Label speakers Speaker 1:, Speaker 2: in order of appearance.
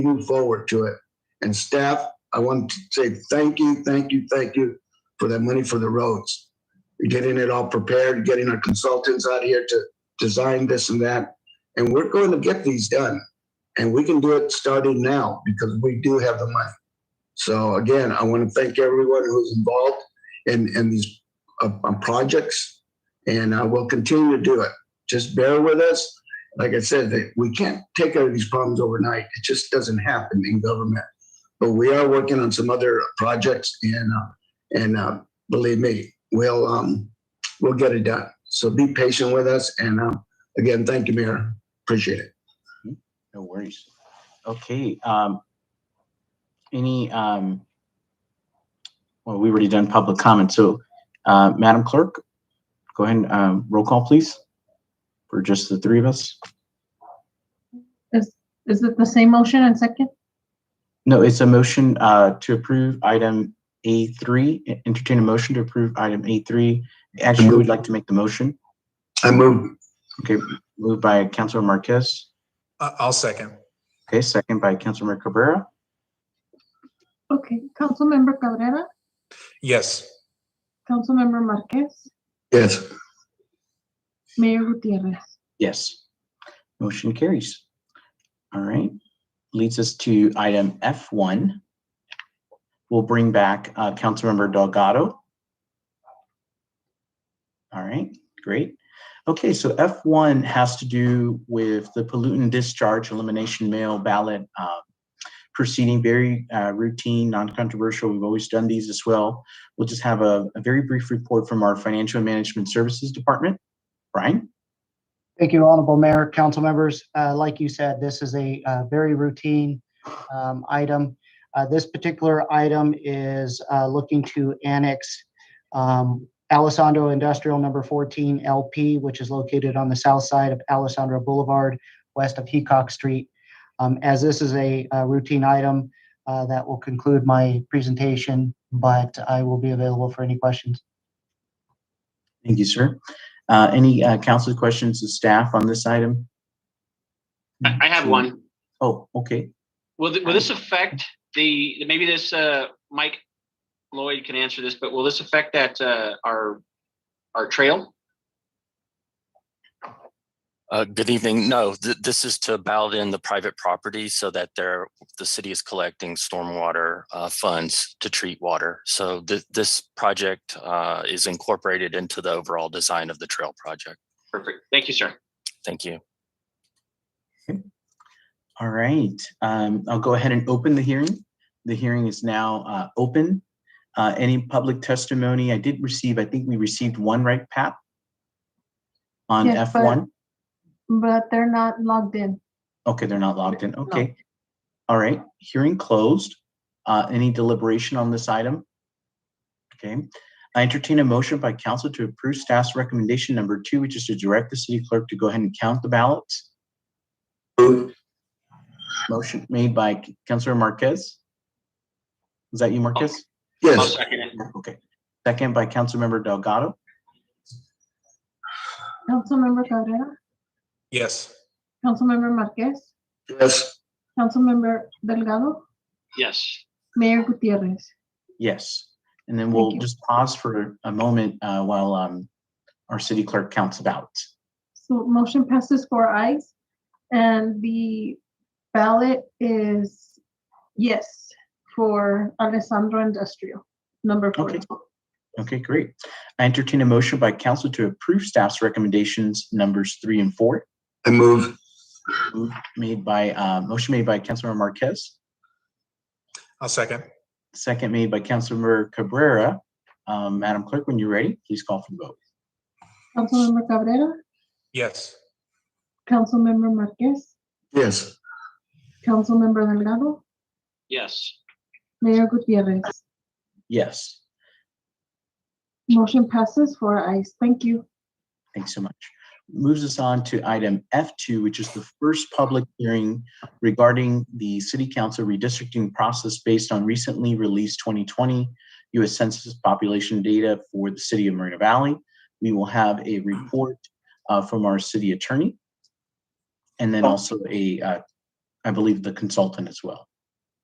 Speaker 1: move forward to it. And staff, I want to say thank you, thank you, thank you for that money for the roads. Getting it all prepared, getting our consultants out here to design this and that. And we're going to get these done. And we can do it starting now because we do have the money. So again, I want to thank everyone who's involved in, in these uh, uh, projects. And I will continue to do it. Just bear with us like I said, that we can't take care of these problems overnight. It just doesn't happen in government. But we are working on some other projects, and uh, and uh, believe me, we'll um, we'll get it done. So be patient with us, and um, again, thank you, Mayor. Appreciate it.
Speaker 2: No worries. Okay, um, any, um, well, we already done public comment, so, uh, Madam Clerk, go ahead and, um, roll call, please, for just the three of us.
Speaker 3: Is it the same motion and second?
Speaker 2: No, it's a motion, uh, to approve item A three, E, entertain a motion to approve item A three. Actually, we would like to make the motion,
Speaker 1: I move.
Speaker 2: moved by Councilor Marquez,
Speaker 4: I- Uh, I'll second.
Speaker 2: okay, second by Councilor Cabrera,
Speaker 3: Okay, Councilmember Cabrera,
Speaker 4: Yes.
Speaker 3: Councilmember Marquez,
Speaker 1: Yes.
Speaker 3: Mayor Gutierrez.
Speaker 2: Yes. Motion carries. All right. Leads us to item F1. We'll bring back uh, Councilmember Delgado. All right, great. Okay, so F1 has to do with the pollutant discharge elimination mail ballot uh, proceeding, very uh, routine, non-controversial. We've always done these as well. We'll just have a a very brief report from our Financial and Management Services Department. Brian?
Speaker 5: Thank you, Honorable Mayor, council members. Uh, Like you said, this is a uh, very routine um, item. Uh, This particular item is uh, looking to annex um, Alessandro Industrial Number 14 LP, which is located on the south side of Alessandro Boulevard, west of Heacock Street. Um, As this is a uh, routine item, uh, that will conclude my presentation, but I will be available for any questions.
Speaker 2: Thank you, sir. Uh, Any uh, council questions to staff on this item?
Speaker 6: I I have one.
Speaker 2: Oh, okay.
Speaker 6: Will, th- will this affect the, maybe this, uh, Mike Lloyd can answer this, but will this affect that, uh, our, our trail?
Speaker 7: Uh, good evening. No, th- this is to ballot in the private property so that there, the city is collecting stormwater uh, funds to treat water. So th- this project uh, is incorporated into the overall design of the trail project.
Speaker 6: Perfect. Thank you, sir.
Speaker 7: Thank you.
Speaker 2: All right. Um, I'll go ahead and open the hearing. The hearing is now uh, open. Uh, Any public testimony? I did receive, I think we received one, right, Pat? On
Speaker 3: Yes, but-
Speaker 2: F1?
Speaker 3: But they're not logged in.
Speaker 2: Okay, they're not logged in. Okay. All right, hearing closed. Uh, Any deliberation on this item? Okay, I entertain a motion by council to approve staff's recommendation number two, which is to direct the city clerk to go ahead and count the ballots.
Speaker 1: Move.
Speaker 2: Motion made by Councilor Marquez. Is that you, Marquez?
Speaker 6: I'll
Speaker 1: Yes.
Speaker 6: second it.
Speaker 2: Okay. Second by Councilmember Delgado.
Speaker 3: Councilmember Cabrera,
Speaker 4: Yes.
Speaker 3: Councilmember Marquez,
Speaker 1: Yes.
Speaker 3: Councilmember Delgado,
Speaker 6: Yes.
Speaker 3: Mayor Gutierrez.
Speaker 2: Yes. And then we'll
Speaker 3: you.
Speaker 2: just pause for a moment uh, while um, our city clerk counts the ballots.
Speaker 3: So motion passes four eyes, and the ballot is yes for Alessandro Industrial, number
Speaker 2: Okay.
Speaker 3: 14.
Speaker 2: Okay, great. I entertain a motion by council to approve staff's recommendations numbers three and four,
Speaker 1: I move.
Speaker 2: made by, uh, motion made by Councilmember Marquez,
Speaker 4: I'll second.
Speaker 2: second made by Councilmember Cabrera. Um, Madam Clerk, when you're ready, please call for the vote.
Speaker 3: Councilmember Cabrera,
Speaker 4: Yes.
Speaker 3: Councilmember Marquez,
Speaker 1: Yes.
Speaker 3: Councilmember Delgado,
Speaker 6: Yes.
Speaker 3: Mayor Gutierrez.
Speaker 2: Yes,
Speaker 3: Motion passes for eyes. Thank you.
Speaker 2: thanks so much. Moves us on to item F2, which is the first public hearing regarding the city council redistricting process based on recently released 2020 U.S. Census population data for the city of Marina Valley. We will have a report uh, from our city attorney and then also a uh, I believe, the consultant as well.